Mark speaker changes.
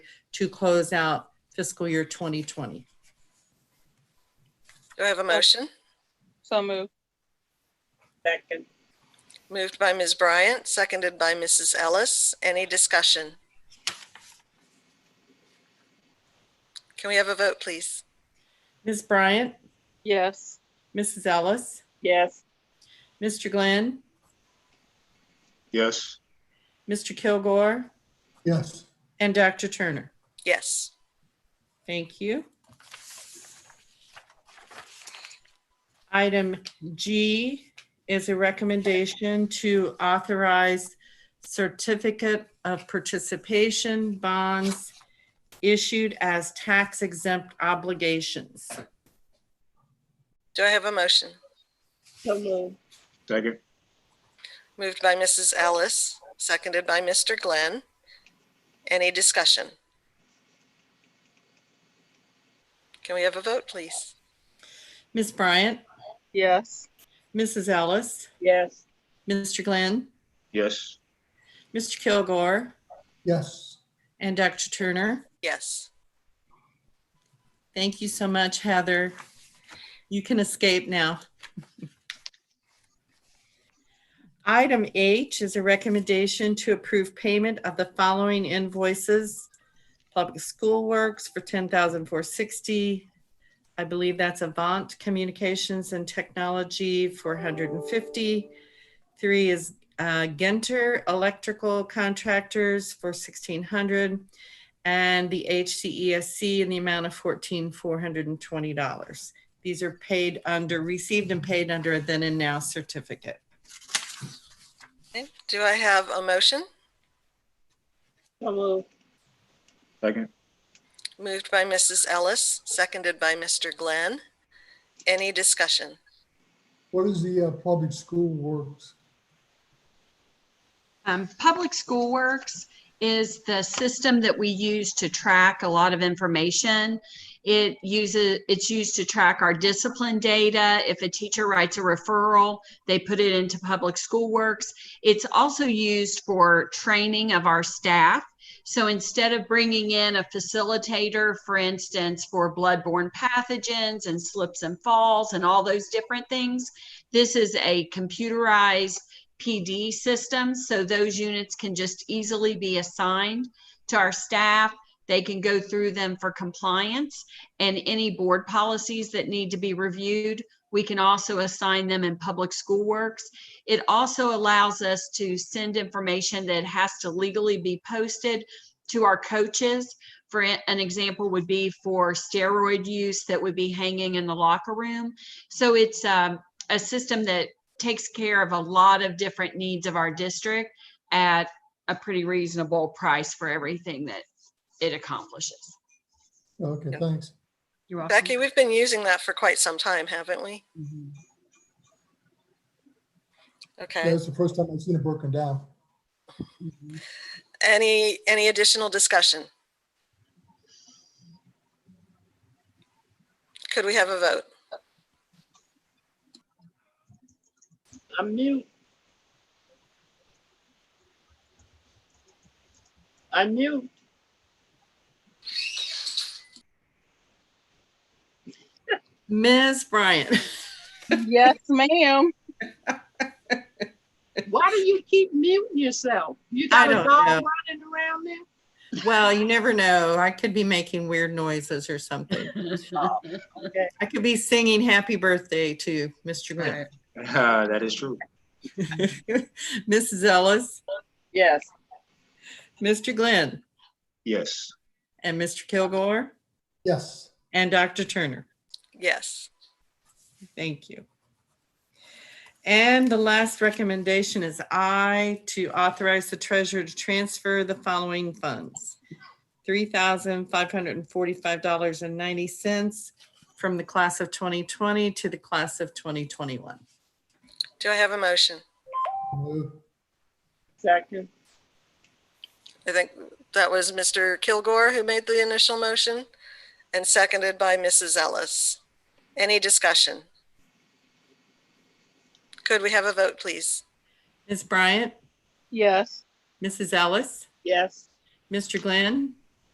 Speaker 1: to close out fiscal year 2020.
Speaker 2: Do I have a motion?
Speaker 3: So moved.
Speaker 4: Second.
Speaker 2: Moved by Ms. Bryant, seconded by Mrs. Ellis. Any discussion? Can we have a vote, please?
Speaker 1: Ms. Bryant,
Speaker 3: Yes.
Speaker 1: Mrs. Ellis,
Speaker 4: Yes.
Speaker 1: Mr. Glenn,
Speaker 5: yes,
Speaker 1: Mr. Kilgore,
Speaker 6: yes,
Speaker 1: and Dr. Turner.
Speaker 2: Yes.
Speaker 1: Thank you. Item G is a recommendation to authorize certificate of participation bonds issued as tax exempt obligations.
Speaker 2: Do I have a motion?
Speaker 4: So moved.
Speaker 5: second,
Speaker 2: Moved by Mrs. Ellis, seconded by Mr. Glenn. Any discussion? Can we have a vote, please?
Speaker 1: Ms. Bryant,
Speaker 3: Yes.
Speaker 1: Mrs. Ellis,
Speaker 4: Yes.
Speaker 1: Mr. Glenn,
Speaker 5: yes,
Speaker 1: Mr. Kilgore,
Speaker 6: yes,
Speaker 1: and Dr. Turner.
Speaker 2: Yes.
Speaker 1: Thank you so much, Heather. You can escape now. Item H is a recommendation to approve payment of the following invoices. Public School Works for ten thousand four sixty. I believe that's Avant Communications and Technology for hundred and fifty. Three is uh, Genter Electrical Contractors for sixteen hundred and the HCESC in the amount of fourteen four hundred and twenty dollars. These are paid under, received and paid under a then and now certificate.
Speaker 2: Okay. Do I have a motion?
Speaker 4: So moved.
Speaker 5: second,
Speaker 2: Moved by Mrs. Ellis, seconded by Mr. Glenn. Any discussion?
Speaker 6: what is the uh, public school works?
Speaker 7: Um, Public School Works is the system that we use to track a lot of information. It uses, it's used to track our discipline data. If a teacher writes a referral, they put it into Public School Works. It's also used for training of our staff. So instead of bringing in a facilitator, for instance, for bloodborne pathogens and slips and falls and all those different things, this is a computerized PD systems, so those units can just easily be assigned to our staff. They can go through them for compliance and any board policies that need to be reviewed. We can also assign them in Public School Works. It also allows us to send information that has to legally be posted to our coaches. For an an example would be for steroid use that would be hanging in the locker room. So it's um, a system that takes care of a lot of different needs of our district at a pretty reasonable price for everything that it accomplishes.
Speaker 6: Okay,
Speaker 2: Yeah.
Speaker 6: thanks.
Speaker 7: You're welcome.
Speaker 2: Becky, we've been using that for quite some time, haven't we?
Speaker 7: Mhm.
Speaker 2: Okay.
Speaker 6: That's the first time I've seen it broken down.
Speaker 7: Mhm.
Speaker 2: Any, any additional discussion? Could we have a vote?
Speaker 4: I'm mute. I'm mute.
Speaker 1: Ms. Bryant,
Speaker 3: Yes, ma'am.
Speaker 4: Why do you keep muting yourself? You
Speaker 1: I
Speaker 4: got a
Speaker 1: don't
Speaker 4: dog
Speaker 1: know.
Speaker 4: running around there?
Speaker 1: well, you never know. I could be making weird noises or something. I could be singing happy birthday to Mr. Glenn.
Speaker 5: Ah, that is true,
Speaker 1: Mrs. Ellis,
Speaker 4: Yes.
Speaker 1: Mr. Glenn,
Speaker 5: yes,
Speaker 1: and Mr. Kilgore,
Speaker 6: Yes,
Speaker 1: and Dr. Turner.
Speaker 2: Yes.
Speaker 1: Thank you. And the last recommendation is I to authorize the treasurer to transfer the following funds. Three thousand five hundred and forty-five dollars and ninety cents from the class of twenty twenty to the class of twenty twenty-one.
Speaker 2: Do I have a motion?
Speaker 6: move,
Speaker 4: Second.
Speaker 2: I think that was Mr. Kilgore who made the initial motion and seconded by Mrs. Ellis. Any discussion? Could we have a vote, please?
Speaker 1: Ms. Bryant,
Speaker 3: Yes.
Speaker 1: Mrs. Ellis,
Speaker 4: Yes.
Speaker 1: Mr. Glenn,